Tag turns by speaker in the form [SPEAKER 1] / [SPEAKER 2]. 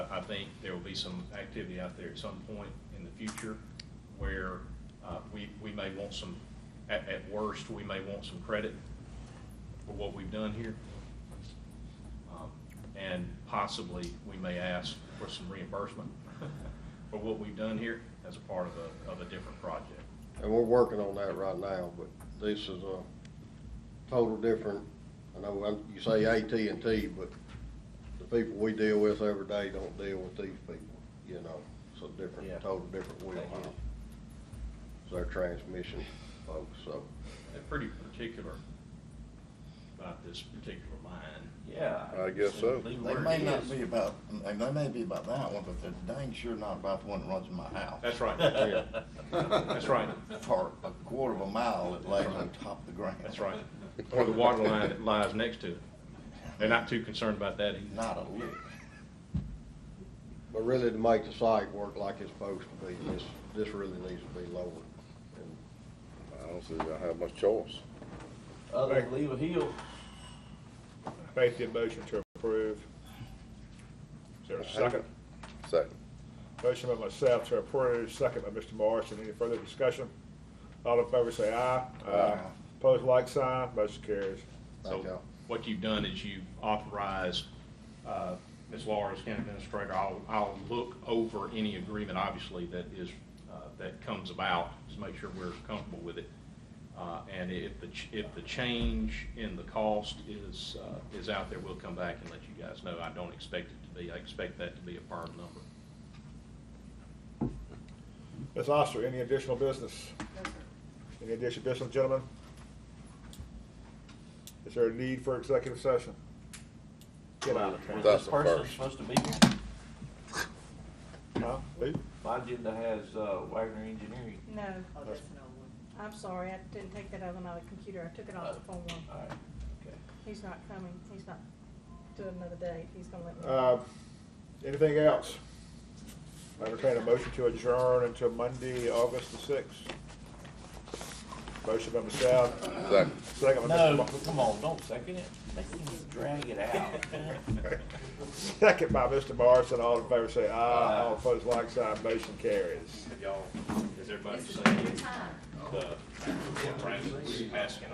[SPEAKER 1] I think there will be some activity out there at some point in the future where uh, we, we may want some, at, at worst, we may want some credit for what we've done here. Um, And possibly, we may ask for some reimbursement for what we've done here as a part of a, of a different project.
[SPEAKER 2] And we're working on that right now, but this is a total different, I know I'm- you say AT&T, but the people we deal with every day don't deal with these people, you know? It's a different,
[SPEAKER 3] Yeah.
[SPEAKER 2] total different wheelhouse. It's their transmission folks, so.
[SPEAKER 1] They're pretty particular about this particular mine.
[SPEAKER 3] Yeah.
[SPEAKER 4] I guess so.
[SPEAKER 1] Leave it
[SPEAKER 3] They
[SPEAKER 1] where
[SPEAKER 3] may
[SPEAKER 1] it
[SPEAKER 3] not
[SPEAKER 1] is.
[SPEAKER 3] be about, they they may be about that one, but they're dang sure not about the one that runs in my house.
[SPEAKER 1] That's right. That's right.
[SPEAKER 3] For a quarter of a mile, it lays on top of the ground.
[SPEAKER 1] That's right. Or the water line that lies next to it. They're not too concerned about that either.
[SPEAKER 3] Not a lick.
[SPEAKER 2] But really to make the site work like it's supposed to be, this, this really needs to be lowered. And
[SPEAKER 4] I don't see I have much choice.
[SPEAKER 5] uh,
[SPEAKER 6] Other than
[SPEAKER 3] leave a heel.
[SPEAKER 6] Make the motion to approve. Is there a second?
[SPEAKER 4] Second.
[SPEAKER 6] Motion by myself to approve, second by Mr. Morrison. Any further discussion? All in favor say aye.
[SPEAKER 3] Aye.
[SPEAKER 6] Pose like sign, motion carries.
[SPEAKER 1] So
[SPEAKER 2] Thank y'all.
[SPEAKER 1] what you've done is you authorize, uh, Ms. Laura as county administrator, I'll, I'll look over any agreement, obviously, that is, uh, that comes about, just make sure we're comfortable with it. Uh, And if the, ch- if the change in the cost is, uh, is out there, we'll come back and let you guys know. I don't expect it to be, I expect that to be a firm number.
[SPEAKER 6] Ms. Oster, any additional business? Any additional business, gentlemen? Is there a need for executive session? Get out of town.
[SPEAKER 4] That's
[SPEAKER 5] This
[SPEAKER 4] the
[SPEAKER 5] person
[SPEAKER 4] first.
[SPEAKER 5] supposed to be here.
[SPEAKER 6] Huh? Lee?
[SPEAKER 5] My agenda has uh, Wagner Engineering.
[SPEAKER 7] No,
[SPEAKER 5] Oh, that's an old one.
[SPEAKER 7] I'm sorry, I didn't take that other one out of the computer, I took it off the phone
[SPEAKER 5] All
[SPEAKER 7] one.
[SPEAKER 5] right, okay.
[SPEAKER 7] He's not coming, he's not doing another date, he's gonna let me.
[SPEAKER 6] Uh, anything else? I entertain a motion to adjourn until Monday, August the sixth. Motion by myself,
[SPEAKER 4] Second.
[SPEAKER 6] second by Mr.
[SPEAKER 5] No,
[SPEAKER 6] Mo-
[SPEAKER 5] come on, don't second it. Make him drag it out.
[SPEAKER 6] second by Mr. Morrison, all in favor say aye, all opposed like sign, motion carries.
[SPEAKER 1] Y'all, is everybody saying the, the, asking